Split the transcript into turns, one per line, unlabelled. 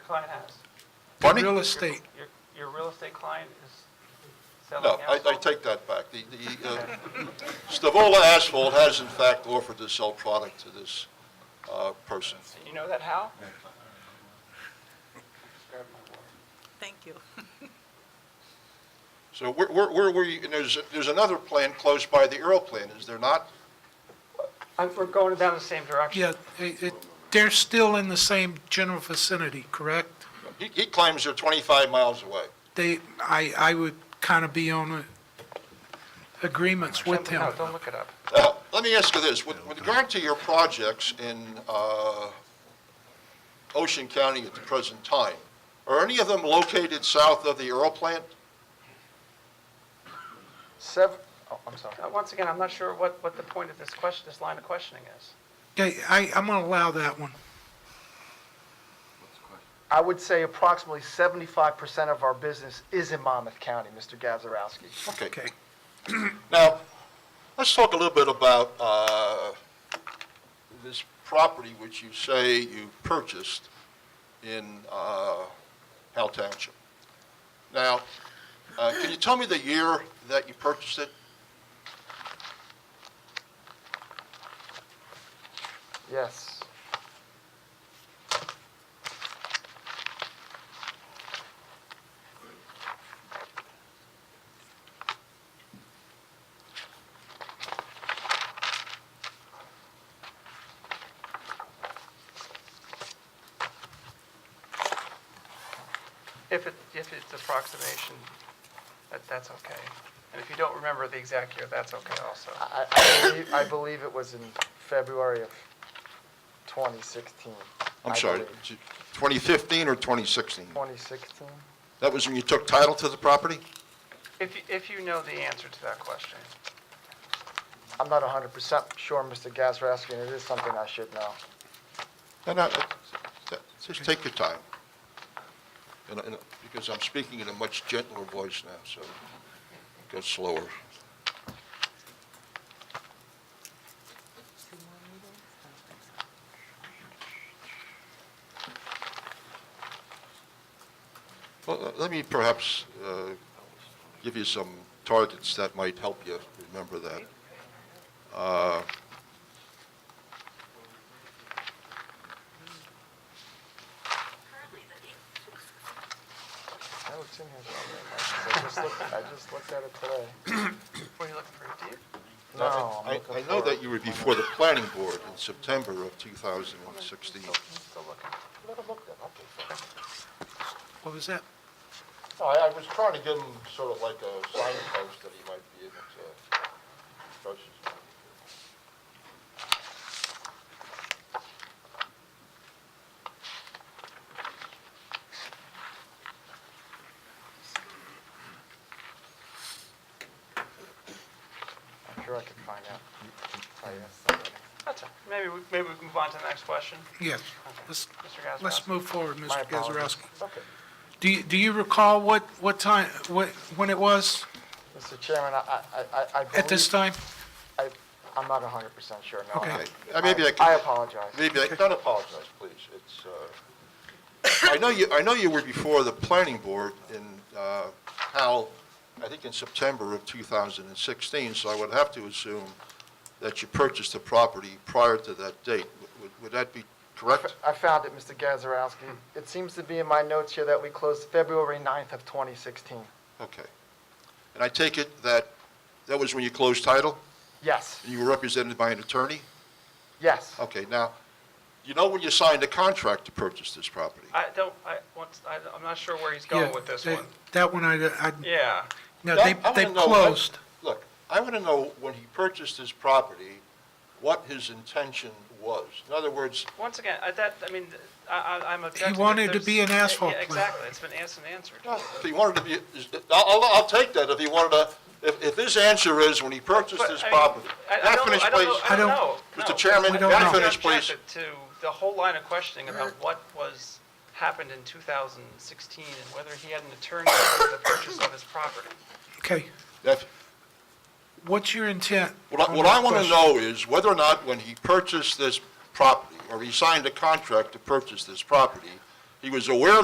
client has?
Pardon me?
Real estate.
Your, your real estate client is selling
No, I,
asphalt?
I take that back. The, the, uh, Stavola Asphalt has in fact offered to sell product to this, uh, person.
And You know that how? Just grab my water.
Thank you.
So where, where, where were you, and there's, there's another plan close by the Earl plan, is there not?
Uh, We're going down the same direction.
Yeah, it, it- they're still in the same general vicinity, correct?
He, he claims they're twenty-five miles away.
They, I, I would kind of be on uh, agreements with him.
No, don't look it up.
Now, let me ask you this, with, with regard to your projects in, uh, Ocean County at the present time, are any of them located south of the Earl plant?
Seven, oh, I'm sorry. Once again, I'm not sure what, what the point of this question, this line of questioning is.
Okay, I, I'm going to allow that one.
I would say approximately 75% of our business is in Monmouth County, Mr. Gazarovski.
Okay.
Okay.
Now, let's talk a little bit about uh, this property which you say you purchased in uh, Howell Township. Now, uh, can you tell me the year that you purchased it?
Yes.
If it, if it's approximation, that, that's okay. And if you don't remember the exact year, that's okay also.
I, I believe, I believe it was in February of 2016.
I'm
I
sorry,
believe.
2015 or 2016?
2016?
That was when you took title to the property?
If, you- if you know the answer to that question.
I'm not 100% sure, Mr. Gazarovski, and it is something I should know.
No, no, that- just take your time. And I- and I- Because I'm speaking in a much gentler voice now, so go slower. Well, uh, let me perhaps uh, give you some targets that might help you remember that. Uh,
Oh, it's in here somewhere. I just looked, I just looked at it today.
Were you looking for a deed?
No, I'm
I
looking
I know
for it.
that you were before the planning board in September of 2016.
Still looking.
What was
No,
that?
Oh, I I was trying to give him sort of like a signpost that he might be able to approach his...
I'm sure I could find out. Tell you something.
That's it. Maybe, we maybe we can move on to the next question.
Yes, let's,
Mr. Gazarovski.
let's move forward,
My
Mr.
apologies.
Gazarovski.
It's okay.
Do you, do you recall what, what time, what, when it was
Mr. Chairman, I, I- I, I
at this
believe,
time?
I, I'm not 100% sure, no.
Okay.
Uh, Maybe I can...
I apologize.
Maybe, I- don't apologize, please. It's, uh, I know you, I know you were before the planning board in uh, Howell, I think in September of 2016, so I would have to assume that you purchased the property prior to that date. Would- Would that be correct?
I found it, Mr. Gazarovski. It seems to be in my notes here that we closed February 9th of 2016.
Okay. And I take it that, that was when you closed title?
Yes,
and You were represented by an attorney?
yes.
Okay, now, you know when you signed a contract to purchase this property?
I don't, I, once, I, I'm not sure where he's
Yeah,
going with this
that-
one.
That one, I, I,
Yeah.
no,
No,
they,
I wanna
they
know what-
closed.
Look, I want to know, when he purchased his property, what his intention was. In other words,
Once again, I, that, I mean, I, I- I'm objecting. that
wanted to
there's-
be an
Yeah, yeah,
asphalt plant.
Exactly. It's been asked and answered.
if he wanted to be, I'll, I'll- I'll take that, if he wanted to, if, if his answer is when he purchased
But,
his
I mean,
property.
I- I
Can I
don't-
finish,
I don't know-
please?
I don't
I
know.
don't-
No.
Mr. Chairman,
We don't may I know.
finish, please?
Objected To the whole line of questioning about what was, happened in 2016 and whether he had an attorney for the purchase of his property.
Okay,
That's-
what's your intent?
What I,
on
what
that
I want to
question?
know is whether or not when he purchased this property, or he signed a contract to purchase this property, he was aware